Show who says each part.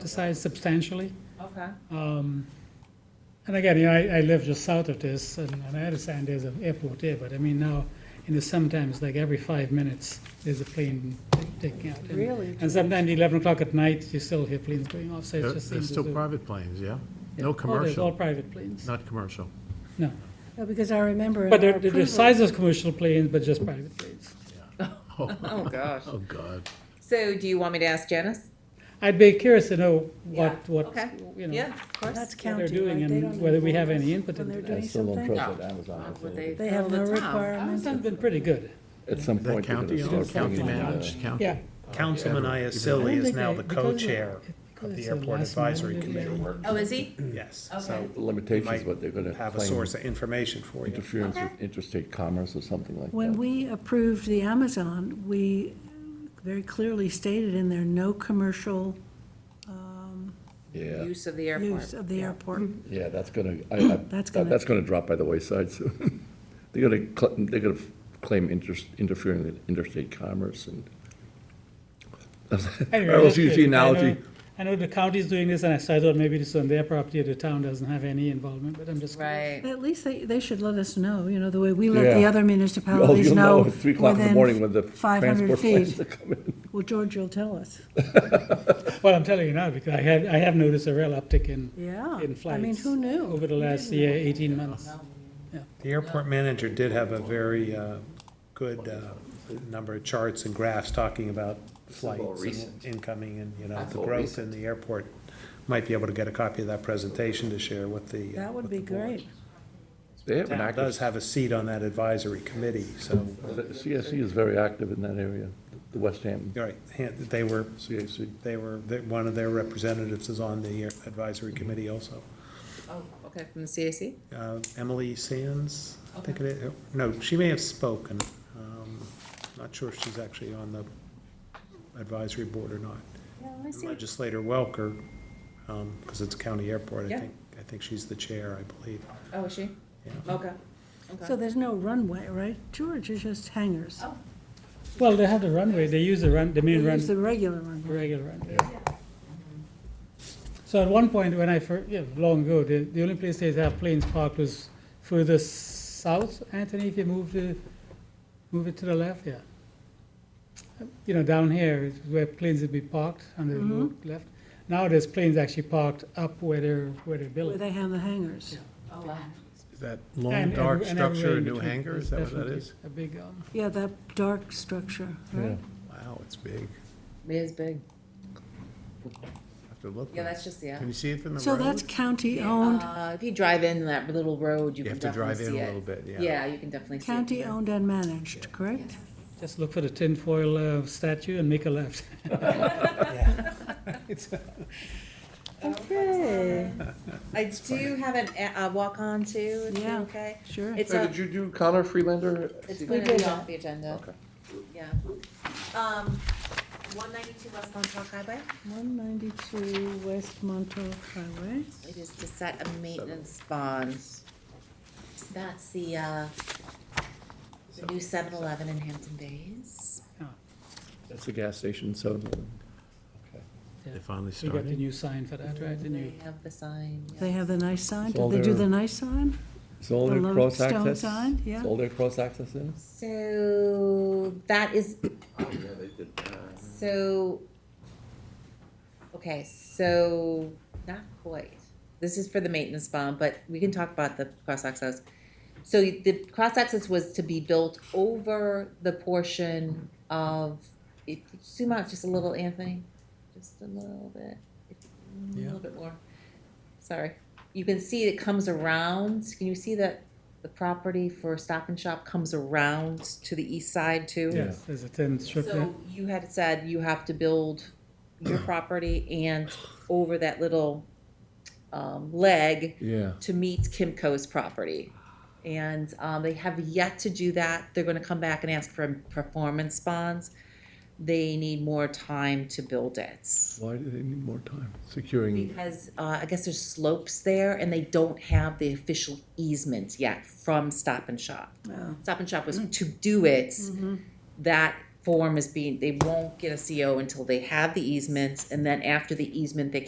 Speaker 1: set aside substantially.
Speaker 2: Okay.
Speaker 1: Um, And again, you know, I, I live just south of this, and and I understand there's an airport there, but I mean, now, in the summertime, it's like every five minutes, there's a plane taking out. And-
Speaker 2: Really?
Speaker 1: And sometimes eleven o'clock at night, you still hear planes going off, so it
Speaker 3: They're
Speaker 1: just
Speaker 3: they're
Speaker 1: seems to
Speaker 3: still
Speaker 1: do-
Speaker 3: private planes, yeah?
Speaker 1: Oh,
Speaker 3: No
Speaker 1: they're All
Speaker 3: commercial,
Speaker 1: private planes,
Speaker 3: not commercial.
Speaker 1: no.
Speaker 4: No, Because I remember. in
Speaker 1: But
Speaker 4: our
Speaker 1: they're, they're the
Speaker 4: approval-
Speaker 1: size of commercial planes, but just private planes.
Speaker 3: Oh,
Speaker 2: Oh, gosh.
Speaker 3: oh, God.
Speaker 2: So do you want me to ask Janice?
Speaker 1: I'd be curious to know
Speaker 2: Yeah,
Speaker 1: what, what,
Speaker 2: okay.
Speaker 1: you know,
Speaker 2: Yeah, of course.
Speaker 4: That's
Speaker 1: what they're
Speaker 4: county,
Speaker 1: doing
Speaker 4: right? They don't
Speaker 1: and whether we have
Speaker 4: inform
Speaker 1: any
Speaker 4: us
Speaker 1: input
Speaker 4: when
Speaker 1: into
Speaker 4: they're
Speaker 1: that.
Speaker 5: I
Speaker 4: doing
Speaker 5: still don't
Speaker 4: something?
Speaker 5: trust what
Speaker 2: No.
Speaker 5: Amazon
Speaker 2: Not
Speaker 5: is.
Speaker 2: what
Speaker 5: doing.
Speaker 4: They have
Speaker 2: All
Speaker 4: no
Speaker 2: the time.
Speaker 4: requirements.
Speaker 1: Amazon's been pretty good.
Speaker 5: At some
Speaker 3: That
Speaker 5: point, they're
Speaker 3: county,
Speaker 5: gonna
Speaker 3: owns-
Speaker 5: start
Speaker 3: county
Speaker 5: bringing in, uh,
Speaker 3: managed, county.
Speaker 1: Yeah.
Speaker 6: Councilman Iasilli is now the co-chair of the Airport Advisory Committee.
Speaker 2: Oh, is he?
Speaker 6: Yes,
Speaker 2: Okay.
Speaker 6: so
Speaker 5: Limitations,
Speaker 6: might
Speaker 5: but they're gonna
Speaker 6: have a
Speaker 5: claim
Speaker 6: source of information for you.
Speaker 5: interference
Speaker 2: Okay.
Speaker 5: with interstate commerce or something like that.
Speaker 4: When we approved the Amazon, we very clearly stated in there, no commercial
Speaker 5: Yeah,
Speaker 2: Use of the airport.
Speaker 4: use of the airport.
Speaker 5: yeah, that's gonna, I, I,
Speaker 4: That's
Speaker 5: that-
Speaker 4: gonna-
Speaker 5: that's gonna drop by the wayside soon. They're gonna, cl- they're gonna claim interest, interfering with interstate commerce and.
Speaker 1: Anyway,
Speaker 5: I
Speaker 1: that's
Speaker 5: was using the
Speaker 1: good. I know-
Speaker 5: analogy,
Speaker 1: I know the county's doing this, and I so I thought maybe this on their property, or the town doesn't have any involvement, but I'm just. curious.
Speaker 2: Right.
Speaker 4: At least they, they should let us know, you know, the way we let the
Speaker 5: Yeah.
Speaker 4: other
Speaker 5: oh,
Speaker 4: municipalities
Speaker 5: you'll
Speaker 4: know.
Speaker 5: know at three o'clock in the morning when the transport
Speaker 4: 500
Speaker 5: planes
Speaker 4: feet.
Speaker 5: are coming.
Speaker 4: Well, George, you'll tell us.
Speaker 1: Well, I'm telling you now, because I have, I have noticed a real uptick in,
Speaker 4: Yeah.
Speaker 1: in
Speaker 4: I mean,
Speaker 1: flights
Speaker 4: who knew?
Speaker 1: over the last year, eighteen months.
Speaker 6: The airport manager did have a very uh, good uh, number of charts and graphs talking about flights and incoming and, you know,
Speaker 5: That's
Speaker 6: the
Speaker 5: all
Speaker 6: growth in the airport. Might be able to get a copy of that presentation to share with the. uh,
Speaker 4: That would
Speaker 6: with
Speaker 4: be
Speaker 6: the board.
Speaker 4: great.
Speaker 5: They have an
Speaker 6: Town does
Speaker 5: active,
Speaker 6: have a seat on that advisory committee, so,
Speaker 5: the CSE is very active in that area, the West Ham
Speaker 6: all right, hand- they were,
Speaker 5: CAC.
Speaker 6: they were, they- one of their representatives is on the advisory committee also.
Speaker 2: Oh, okay, from the CAC?
Speaker 6: uh, Emily Sands, I think it is, no, she may have spoken. Um, Not sure if she's actually on the advisory board or not.
Speaker 2: Yeah, I
Speaker 6: And
Speaker 2: see.
Speaker 6: Legislator Welker, because it's a county airport, I
Speaker 2: Yeah.
Speaker 6: think, I think she's the chair, I believe.
Speaker 2: Oh, is she?
Speaker 6: Yeah.
Speaker 2: Okay.
Speaker 4: So
Speaker 2: Okay.
Speaker 4: there's no runway, right? George, it's just hangars.
Speaker 2: Oh.
Speaker 1: Well, they have the runway, they use the run, the main
Speaker 4: It's the
Speaker 1: run,
Speaker 4: regular runway.
Speaker 1: regular runway. So at one point, when I fir, yeah, long ago, the, the only place they have planes parked was further south, Anthony, if you move the, move it to the left, yeah. You know, down here is where planes would be parked, on the road
Speaker 4: Mm-hmm.
Speaker 1: left. Now there's planes actually parked up where they're, where they're
Speaker 4: Where
Speaker 1: building.
Speaker 4: they have the hangars.
Speaker 2: Oh, wow.
Speaker 6: Is that
Speaker 1: And-
Speaker 6: long,
Speaker 1: and-
Speaker 6: dark
Speaker 1: and everywhere
Speaker 6: structure,
Speaker 1: in
Speaker 6: new
Speaker 1: between.
Speaker 6: hangar, is
Speaker 1: It's
Speaker 6: that what that
Speaker 1: definitely
Speaker 6: is?
Speaker 1: A big, um,
Speaker 4: Yeah, that dark structure, right?
Speaker 6: Wow, it's big.
Speaker 2: It is big.
Speaker 6: Have to look.
Speaker 2: Yeah, that's just, yeah.
Speaker 6: Can you see it from the road?
Speaker 4: So that's county-owned,
Speaker 2: Uh, if you drive in that little road, you
Speaker 6: You
Speaker 2: can
Speaker 6: have to drive
Speaker 2: definitely
Speaker 6: in
Speaker 2: see
Speaker 6: a
Speaker 2: it.
Speaker 6: little bit, yeah.
Speaker 2: Yeah, you can definitely see it.
Speaker 4: county-owned and managed, correct?
Speaker 1: just look for the tinfoil uh, statue and make a left.
Speaker 2: Okay. I do have an, a a walk-on too, if you're
Speaker 4: Yeah.
Speaker 2: okay.
Speaker 4: Sure.
Speaker 2: It's
Speaker 5: So
Speaker 2: a,
Speaker 5: did you do Connor Freelander?
Speaker 2: it's
Speaker 4: We
Speaker 2: going to
Speaker 4: did
Speaker 2: be
Speaker 4: that.
Speaker 2: off the agenda.
Speaker 5: Okay.
Speaker 2: Yeah. Um, one ninety-two West Montauk Highway.
Speaker 4: One ninety-two West Montauk Highway.
Speaker 2: It is to set a maintenance bond. That's the, uh, the new seven eleven in Hampton Bays.
Speaker 5: That's the gas station, so.
Speaker 6: They finally
Speaker 1: You got the
Speaker 6: started.
Speaker 1: new sign for that, right? The new-
Speaker 2: They have the sign. yeah.
Speaker 4: They have the nice sign,
Speaker 5: It's
Speaker 4: did
Speaker 5: all
Speaker 4: they do
Speaker 5: their-
Speaker 4: the nice sign?
Speaker 5: It's all
Speaker 4: The
Speaker 5: their
Speaker 4: lone
Speaker 5: cross
Speaker 4: stone
Speaker 5: access?
Speaker 4: sign, yeah.
Speaker 5: It's all their cross access in?
Speaker 2: So that is. So. Okay, so not quite. This is for the maintenance bond, but we can talk about the cross access. So the cross access was to be built over the portion of, if, zoom out just a little, Anthony, just a little bit, a little bit more. Sorry, you can see it comes around, can you see that the property for Stop and Shop comes around to the east side too?
Speaker 1: Yes, there's a tin strip there.
Speaker 2: So you had said you have to build your property and over that little, um, leg
Speaker 5: Yeah.
Speaker 2: to meet Kimco's property. And um, they have yet to do that. They're going to come back and ask for performance bonds. They need more time to build it.
Speaker 5: Why do they need more time? Securing,
Speaker 2: Because uh, I guess there's slopes there and they don't have the official easement yet from Stop and Shop. Stop and Shop was to do it. That form is being, they won't get a CO until they have the easements. And then after the easement, they